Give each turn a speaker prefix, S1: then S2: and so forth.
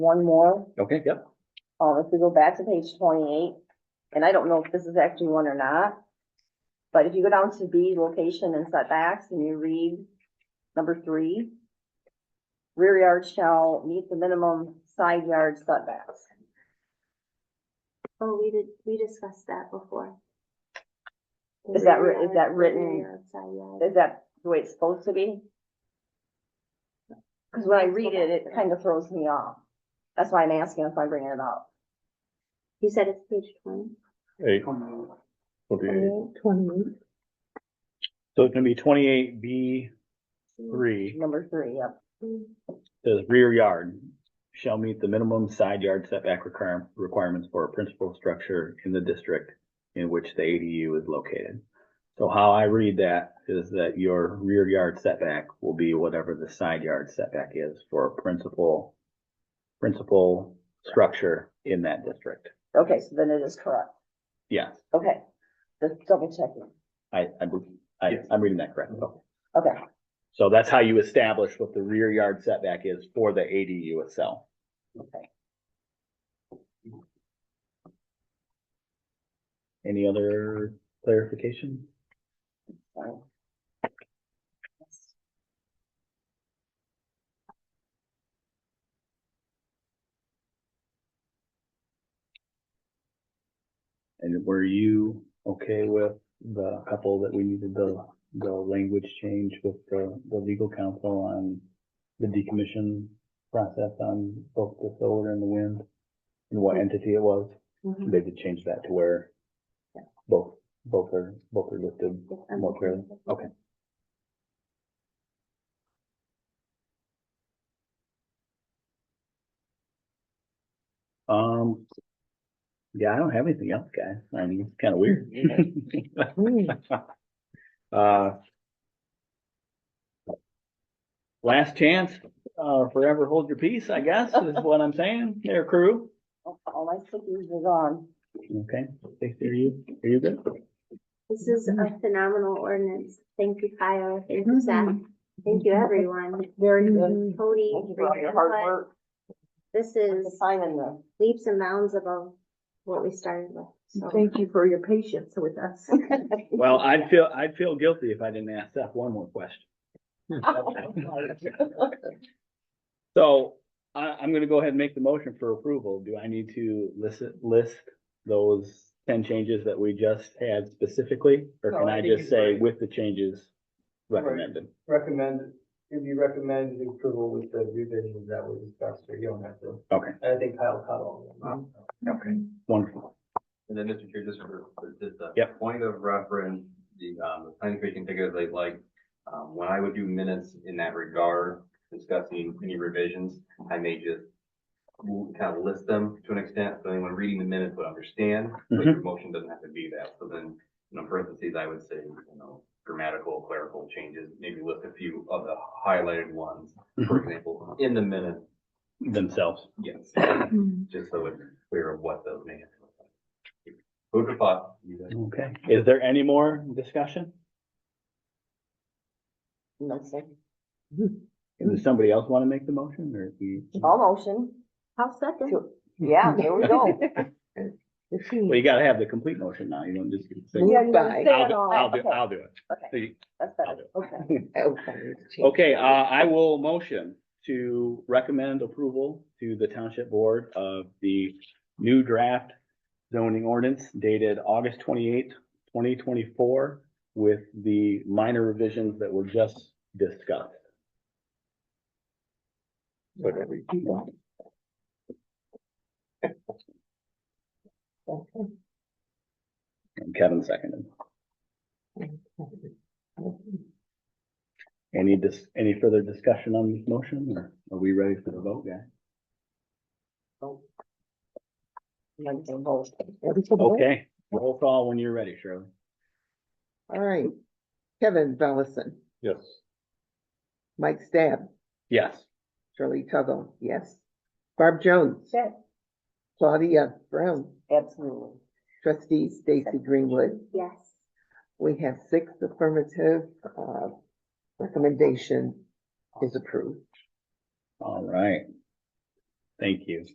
S1: one more,
S2: Okay, yep.
S1: um, if we go back to page twenty-eight, and I don't know if this is actually one or not. But if you go down to B, location and setbacks, and you read number three. Rear yard shall meet the minimum side yard setbacks.
S3: Oh, we did, we discussed that before. The
S1: Is that
S3: rear
S1: writ- is
S3: yard-
S1: that
S3: the rear
S1: written-
S3: yard, side yard.
S1: Is that the way it's supposed to be? Cause when I read it, it kind of throws me off. That's why I'm asking if I bring it up.
S3: You said it's page twenty?
S4: Eight. Twenty-eight. So it's gonna be twenty-eight B three,
S1: Number three, yep.
S4: says rear yard shall meet the minimum side yard setback requirement, requirements for a principal structure in the district in which the ADU is located. So how I read that is that your rear yard setback will be whatever the side yard setback is for a principal, principal structure in that district.
S1: Okay, so then it is correct.
S4: Yes,
S1: Okay, just double checking.
S4: I, I, believe- I, I'm reading that correctly.
S1: Okay,
S4: So that's how you establish what the rear yard setback is for the ADU itself.
S1: okay.
S4: Any other clarification?
S1: fine.
S4: And were you okay with the couple that we needed the, the language change with the, the legal counsel on the decommission process on both the solar and the wind? And what entity it was? They did change that to where both, both are, both are listed more clearly? Okay. Um, yeah, I don't have anything else, guys. I mean, it's kind of weird. Uh, Last chance, uh, forever hold your peace, I guess, is what I'm saying, there crew.
S1: All- All my cookies is on.
S4: Okay, Stacy, are you, are you good?
S3: This is a phenomenal ordinance. Thank you, Kyle. Thank you, Zach. Thank you, everyone.
S1: Very
S5: Mm-hmm.
S3: Cody. for
S1: Thank you for all your
S3: your
S1: hard
S3: input.
S1: work.
S3: This
S1: The
S3: is
S1: sign in the,
S3: leaps and bounds above what we started with. So
S5: Thank you for your patience with us.
S4: Well, I'd feel, I'd feel guilty if I didn't ask Seth one more question. So I, I'm gonna go ahead and make the motion for approval. Do I need to list, list those ten changes that we just had specifically? Or
S6: No,
S4: can
S6: I
S4: I
S6: think
S4: just
S6: you're
S4: say
S6: right.
S4: with the changes recommended?
S6: recommend, if you recommend the approval with the revisions that were discussed, or you don't have to.
S4: Okay.
S6: I think Kyle caught all of them.
S4: Okay. Wonderful.
S7: And then, Mr. Chair, just for, for just a
S4: Yep.
S7: point of reference, the, um, the planning commission figure they like, um, when I would do minutes in that regard, discussing any revisions, I may just kind of list them to an extent, so anyone reading the minutes would understand, but your motion doesn't have to be that. So then, you know, parentheses, I would say, you know, grammatical, clerical changes, maybe list a few of the highlighted ones, for example, in the minute,
S4: Themselves.
S7: yes, just so it's clear of what those may have. looked like. Food for thought, you guys.
S4: Okay. Is there any more discussion?
S1: no second.
S6: Mm-hmm.
S4: Does somebody else want to make the motion or we?
S1: All motion.
S5: I'll second.
S1: to- Yeah, there we go.
S4: Well, you gotta have the complete motion now. You don't just. say-
S1: Yeah, you gotta say
S4: I'll
S1: it
S4: do,
S1: all.
S4: I'll do,
S1: Okay,
S4: I'll do it. So
S1: Okay,
S4: you-
S1: that's
S4: I'll
S1: better.
S4: do
S1: Okay,
S4: Okay, uh, I will motion to recommend approval to the township board of the new draft zoning ordinance dated August twenty-eighth, twenty twenty-four with the minor revisions that were just discussed. Whatever you want. And Kevin seconded. Any dis, any further discussion on this motion or are we ready for the vote, guys?
S1: I'm gonna do both.
S4: Okay, roll call when you're ready, Shirley.
S8: All right. Kevin Bellison,
S4: Yes.
S8: Mike Stab,
S4: Yes.
S8: Shirley Tuggle, yes. Barb Jones,
S1: Yes,
S8: Claudia Brown,
S1: Absolutely.
S8: trustee Stacy Greenwood.
S3: yes,
S8: We have six affirmative, uh, recommendation is approved.
S4: All right. Thank you.